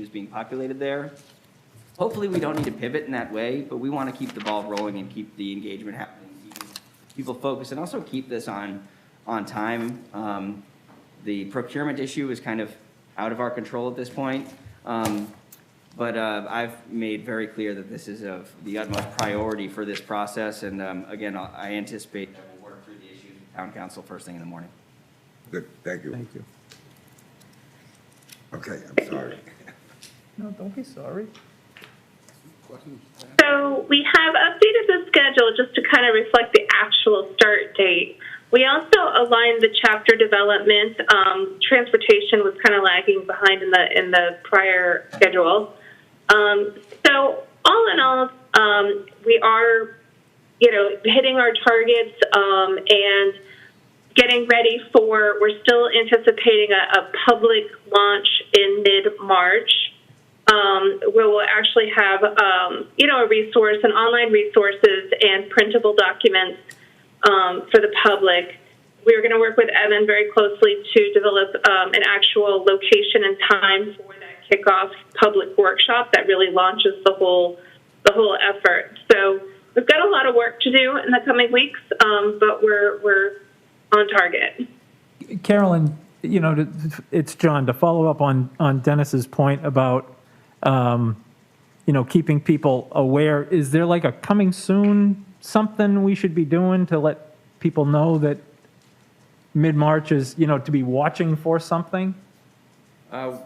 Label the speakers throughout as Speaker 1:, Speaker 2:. Speaker 1: who's being populated there. Hopefully, we don't need to pivot in that way, but we want to keep the ball rolling and keep the engagement happening, keep people focused, and also keep this on, on time. Um, The procurement issue is kind of out of our control at this point. Um, but uh, I've made very clear that this is of the utmost priority for this process, and um, again, I I anticipate that we'll work through the issues with town council first thing in the morning.
Speaker 2: Good, thank you.
Speaker 3: Thank you.
Speaker 2: Okay, I'm sorry.
Speaker 3: No, don't be sorry.
Speaker 4: So we have updated the schedule just to kind of reflect the actual start date. We also aligned the chapter development. Um, transportation was kind of lagging behind in the in the prior schedule. Um, so all in all, um, we are, you know, hitting our targets um, and getting ready for. We're still anticipating a, a public launch in mid March um, where we'll actually have, um, you know, a resource and online resources and printable documents um, for the public. We're going to work with Evan very closely to develop um, an actual location and time for that kickoff public workshop that really launches the whole the whole effort. So we've got a lot of work to do in the coming weeks, um, but we're we're on target.
Speaker 5: Carolyn, you know, to- it's John, to follow up on, on Dennis's point about, um, you know, keeping people aware, is there like a coming soon something we should be doing to let people know that mid-March is, you know, to be watching for something?
Speaker 1: Uh,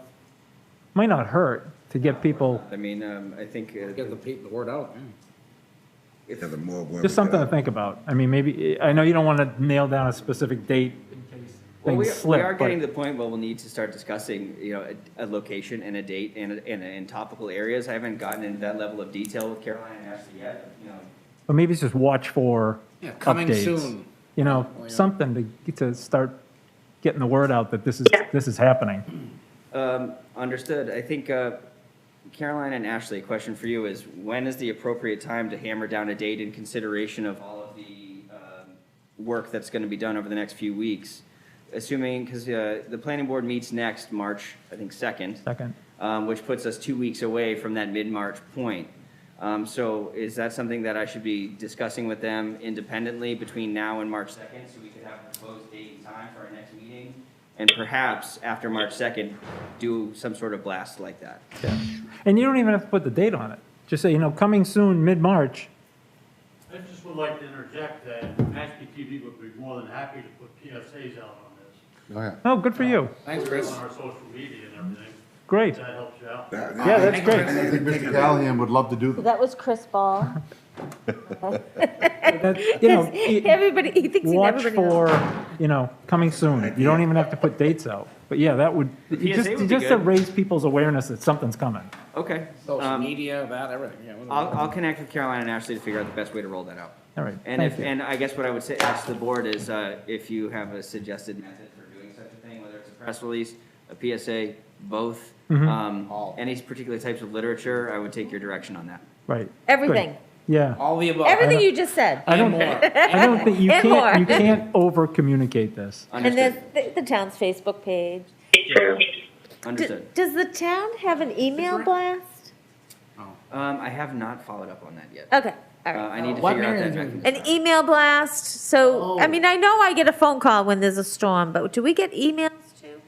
Speaker 5: Might not hurt to get people,
Speaker 1: I mean, um, I think, uh,
Speaker 6: Get the people, the word out, yeah.
Speaker 2: Yeah, the more women.
Speaker 5: just something to
Speaker 2: that-
Speaker 5: think about. I mean, maybe, I know you don't want to nail down a specific date in case
Speaker 1: well, we
Speaker 5: things slip.
Speaker 1: we are
Speaker 5: but-
Speaker 1: getting to the point where we'll need to start discussing, you know, a a location and a date and, a- and, a- and topical areas. I haven't gotten into that level of detail with Caroline and Ashley yet, you know.
Speaker 5: Or maybe it's just watch for
Speaker 6: Yeah, coming
Speaker 5: updates.
Speaker 6: soon.
Speaker 5: You know,
Speaker 6: Oh, yeah.
Speaker 5: something to, to start getting the word out that this is,
Speaker 4: Yeah.
Speaker 5: this is happening.
Speaker 1: Um, Understood. I think, uh, Caroline and Ashley, a question for you is, when is the appropriate time to hammer down a date in consideration of all of the um, work that's going to be done over the next few weeks? Assuming, because the planning board meets next, March, I think, 2nd.
Speaker 5: Second.
Speaker 1: um, which puts us two weeks away from that mid-March point. Um, So is that something that I should be discussing with them independently between now and March 2nd? So we could have a proposed date and time for our next meeting? And perhaps after March 2nd, do some sort of blast like that?
Speaker 5: Yeah. And you don't even have to put the date on it. Just say, you know, coming soon, mid-March.
Speaker 7: I just would like to interject that Mashpee TV would be more than happy to put PSAs out on this,
Speaker 6: Oh, yeah.
Speaker 5: Oh, good for you.
Speaker 6: Thanks, Chris.
Speaker 7: on our social media and everything.
Speaker 5: Great.
Speaker 7: If that helps you out.
Speaker 2: that-
Speaker 5: Yeah, that's great.
Speaker 6: Thanks,
Speaker 8: I think Mr. Callahan would love to do them.
Speaker 9: That was Chris Ball.
Speaker 5: That- You know, you-
Speaker 9: Everybody, he thinks he's
Speaker 5: watch
Speaker 9: everybody else.
Speaker 5: for, you know, coming soon. You don't even have to put dates out. But yeah, that would,
Speaker 1: PSA
Speaker 5: just,
Speaker 1: would be
Speaker 5: just to
Speaker 1: good.
Speaker 5: raise people's awareness that something's coming.
Speaker 1: Okay.
Speaker 6: Social
Speaker 1: Um,
Speaker 6: media, that, everything, yeah.
Speaker 1: I'll, I'll connect with Caroline and Ashley to figure out the best way to roll that out.
Speaker 5: All right,
Speaker 1: And
Speaker 5: thank
Speaker 1: if,
Speaker 5: you.
Speaker 1: and I guess what I would say, ask the board is, uh, if you have a suggested method for doing such a thing, whether it's a press release, a PSA, both, um,
Speaker 6: All.
Speaker 1: any particular types of literature, I would take your direction on that.
Speaker 5: Right.
Speaker 9: Everything.
Speaker 5: Yeah.
Speaker 6: All the above.
Speaker 1: uh,
Speaker 9: Everything you just said.
Speaker 5: I don't,
Speaker 6: And more.
Speaker 5: I don't think, you
Speaker 9: And
Speaker 5: can't,
Speaker 9: more.
Speaker 5: you can't over-communicate this.
Speaker 9: And
Speaker 1: Understood,
Speaker 9: then the- the town's Facebook page.
Speaker 4: True.
Speaker 9: D-
Speaker 1: understood.
Speaker 9: Does the town have an email blast?
Speaker 1: Um, I have not followed up on that yet.
Speaker 9: Okay, all
Speaker 1: Uh,
Speaker 9: right.
Speaker 1: I need to
Speaker 6: What
Speaker 1: figure out
Speaker 6: Mary
Speaker 1: that
Speaker 6: is
Speaker 1: mechanism.
Speaker 9: An email blast, so, I
Speaker 6: Oh.
Speaker 9: mean, I know I get a phone call when there's a storm, but do we get emails too?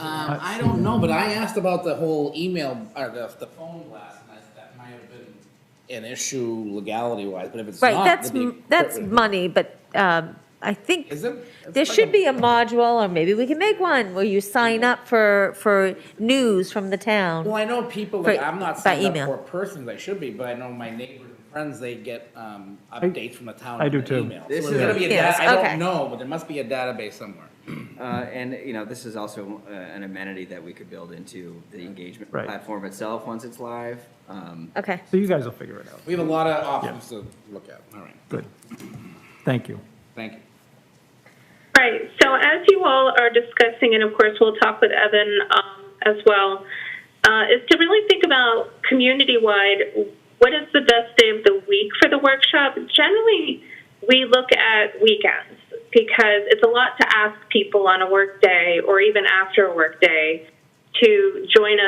Speaker 6: Um, I don't know, but I asked about the whole email, or the, the phone blast, and I, that might have been an issue legality wise, but if it's not.
Speaker 9: Right, that's,
Speaker 6: then you-
Speaker 9: m- that's money, but um, I think
Speaker 6: Is it?
Speaker 9: there
Speaker 6: it's like
Speaker 9: should
Speaker 6: a-
Speaker 9: be a module, or maybe we can make one, where you sign up for, for news from the town.
Speaker 6: Well, I know people
Speaker 9: For-
Speaker 6: that I'm not
Speaker 9: by
Speaker 6: signed up
Speaker 9: email.
Speaker 6: for persons, I should be, but I know my neighbors and friends, they get, um, updates from the town.
Speaker 5: I
Speaker 6: on
Speaker 5: do
Speaker 6: the
Speaker 5: too.
Speaker 6: email. So
Speaker 1: This
Speaker 6: there's
Speaker 1: is-
Speaker 6: gotta be a
Speaker 9: Yes,
Speaker 6: data, I
Speaker 9: okay.
Speaker 6: don't know, but there must be a database somewhere.
Speaker 1: Uh, and, you know, this is also uh, an amenity that we could build into the engagement
Speaker 5: Right.
Speaker 1: platform itself, once it's live. Um,
Speaker 9: Okay.
Speaker 5: So you guys will figure it out.
Speaker 6: We have a lot of options to look at, all right,
Speaker 5: Good. Thank you.
Speaker 6: thank you.
Speaker 4: Right. So as you all are discussing, and of course we'll talk with Evan um, as well, uh, is to really think about community-wide, what is the best day of the week for the workshop? Generally, we look at weekends because it's a lot to ask people on a work day or even after a work day to join us.